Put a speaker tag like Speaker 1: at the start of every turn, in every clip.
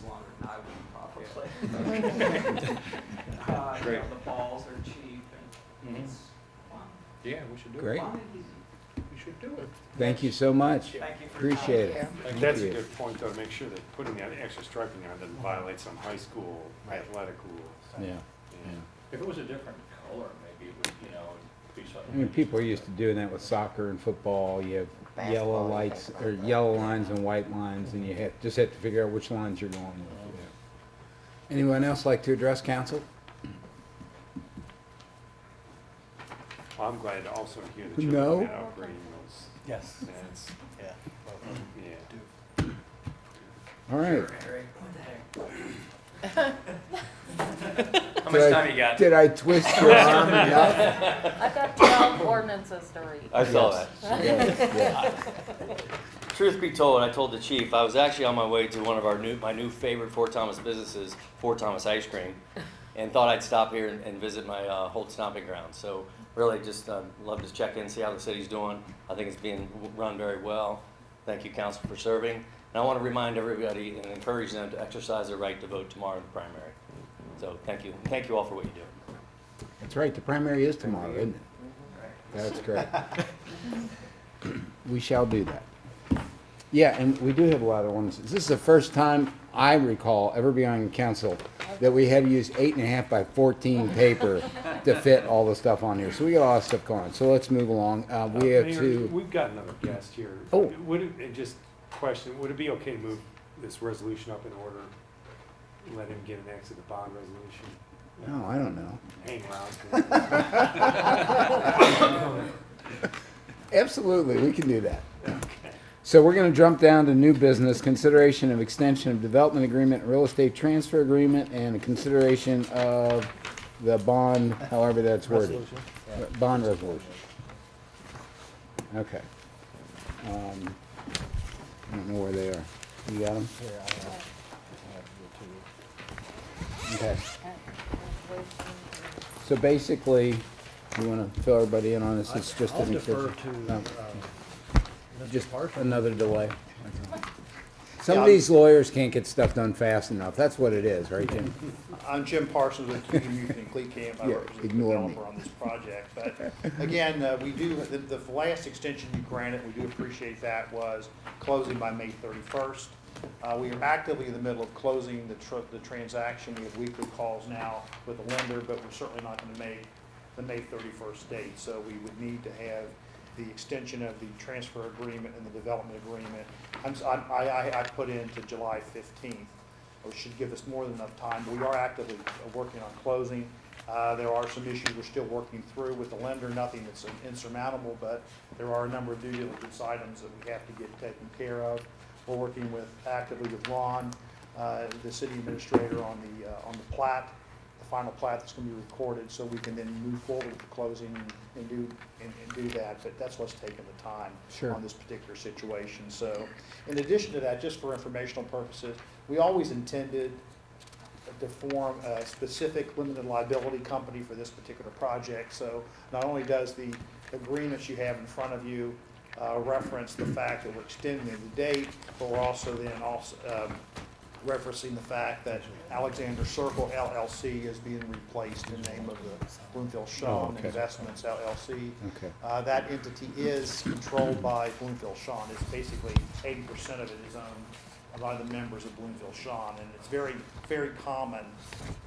Speaker 1: Uh, you
Speaker 2: Great.
Speaker 1: know, the balls are cheap and
Speaker 2: Mhm.
Speaker 1: it's fun.
Speaker 2: Yeah, we should do it.
Speaker 3: Mm-hmm. Great.
Speaker 1: Fun and easy.
Speaker 2: We should do it.
Speaker 3: Thank you so much.
Speaker 1: Thank you for your time.
Speaker 3: Appreciate it.
Speaker 4: And That's a good point, though, to make sure that putting that extra striping on doesn't violate some high school athletic rules.
Speaker 3: Yeah.
Speaker 4: Yeah.
Speaker 5: If it was a different color, maybe it would, you know, it'd be
Speaker 3: I
Speaker 5: something.
Speaker 3: mean, people are used to doing that with soccer and football. You have
Speaker 6: Basketball,
Speaker 3: yellow
Speaker 6: you
Speaker 3: lights,
Speaker 6: think
Speaker 3: or
Speaker 6: about that.
Speaker 3: yellow lines and white lines, and you have, just have to figure out which lines you're going with. Anyone else like to address council?
Speaker 4: Well, I'm glad to also hear that you're
Speaker 3: No.
Speaker 4: looking at upgrading those.
Speaker 7: Yes,
Speaker 4: That's,
Speaker 7: yeah.
Speaker 4: yeah.
Speaker 3: All right.
Speaker 5: How
Speaker 3: Did I- Did I twist your arm enough?
Speaker 8: I've got twelve ordinances to read.
Speaker 9: I saw that.
Speaker 3: Yes, yes.
Speaker 9: Truth be told, I told the chief, I was actually on my way to one of our new, my new favorite Fort Thomas businesses, Fort Thomas Ice Cream, and thought I'd stop here and, and visit my uh, Holt Stomping Ground. So really, just uh, love to check in, see how the city's doing. I think it's being w- run very well. Thank you, council, for serving. And I want to remind everybody and encourage them to exercise their right to vote tomorrow in the primary. So thank you, thank you all for what you do.
Speaker 3: That's right, the primary is tomorrow, isn't it?
Speaker 1: Right.
Speaker 3: That's correct. We shall do that. Yeah, and we do have a lot of ordinances. This is the first time I recall ever being on council that we had to use eight and a half by fourteen paper to fit all the stuff on here. So we got a lot of stuff going. on. So let's move along. Uh, we have
Speaker 4: Mayor,
Speaker 3: to,
Speaker 4: We've got another guest here.
Speaker 3: Oh.
Speaker 4: Would it, and just question, would it be okay to move this resolution up in order? Let him get an exit the bond resolution?
Speaker 3: no, oh, I don't know.
Speaker 4: Hang around.
Speaker 3: Absolutely, we can do that. So we're gonna jump down to new business, consideration of extension of development agreement, real estate transfer agreement, and a consideration of the bond, however that's worded. Bond resolution. Okay. Um, I don't know where they are. You got them? Okay. So basically, you wanna fill everybody in on this, it's just
Speaker 7: I'll
Speaker 3: an
Speaker 7: defer
Speaker 3: extension?
Speaker 7: to,
Speaker 3: No.
Speaker 7: um,
Speaker 5: uh,
Speaker 7: Mr.
Speaker 3: Just
Speaker 7: Parson.
Speaker 3: another delay. Some of these lawyers can't get stuff done fast enough. That's what it is, right, Jim?
Speaker 10: I'm Jim Parsons with Community Youth and Clee Camp. I
Speaker 3: Yeah,
Speaker 10: represent the
Speaker 3: ignore me.
Speaker 10: developer on this project. But again, uh, we do, the, the last extension you granted, we do appreciate that, was closing by May thirty-first. Uh, we are actively in the middle of closing the tr- the transaction. We have weekly calls now with the lender, but we're certainly not gonna make the May thirty-first date. So we would need to have the extension of the transfer agreement and the development agreement. I'm, s- I, I, I put into July fifteenth which should give us more than enough time. We are actively working on closing. Uh, There are some issues we're still working through with the lender, nothing that's insurmountable, but there are a number of due diligence items that we have to get taken care of. We're working with, actively with Ron, uh, the city administrator, on the, uh, on the plat, the final plat that's going to be recorded, so we can then move forward with the closing and do, and and do that. But that's what's taking the time
Speaker 3: Sure.
Speaker 10: on this particular situation. So, in addition to that, just for informational purposes, we always intended to form a specific limited liability company for this particular project. So not only does the agreements you have in front of you uh, reference the fact that we're extending the date, but we're also then also um, referencing the fact that Alexander Circle LLC is being replaced in name of the Bloomfield
Speaker 3: Oh,
Speaker 10: Shawn
Speaker 3: okay.
Speaker 10: Investments LLC.
Speaker 3: Okay.
Speaker 10: Uh, That entity is controlled by Bloomfield Shawn. It's basically eighty percent of it is owned by the members of Bloomfield Shawn. And it's very, very common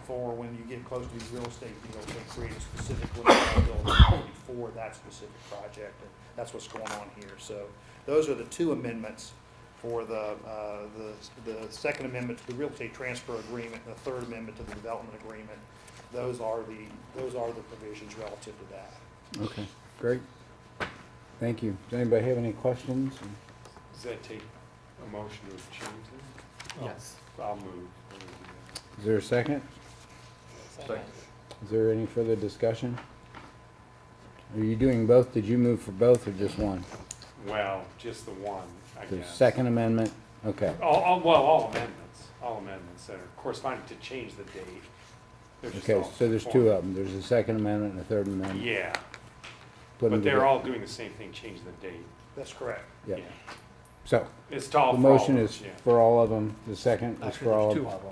Speaker 10: for when you get close to these real estate deals, they create a specific limited liability for that specific project. And that's what's going on here. So those are the two amendments for the, uh, the, the second amendment to the real estate transfer agreement, and the third amendment to the development agreement. Those are the, those are the provisions relative to that.
Speaker 3: Okay, great. Thank you. Does anybody have any questions?
Speaker 4: Does that take a motion to change it?
Speaker 1: Yes.
Speaker 4: I'll move.
Speaker 3: Is there a second? Is there any further discussion? Are you doing both? Did you move for both or just one?
Speaker 4: Well, just the one, I
Speaker 3: The
Speaker 4: guess.
Speaker 3: second amendment? Okay.
Speaker 4: All, all, well, all amendments, all amendments that are corresponding to change the date. They're just
Speaker 3: Okay,
Speaker 4: all
Speaker 3: so there's two of them. There's a second amendment and a third
Speaker 4: form-
Speaker 3: amendment.
Speaker 4: Yeah,
Speaker 3: Put 'em
Speaker 4: but they're
Speaker 3: together.
Speaker 4: all doing the same thing, change the date.
Speaker 10: That's correct.
Speaker 3: Yeah. So,
Speaker 4: It's tall
Speaker 3: the
Speaker 4: for all of
Speaker 3: motion
Speaker 4: us,
Speaker 3: is
Speaker 4: yeah.
Speaker 3: for all of them. The second is
Speaker 7: Actually,
Speaker 3: for all
Speaker 7: there's
Speaker 3: of
Speaker 7: two
Speaker 3: them.
Speaker 7: of them.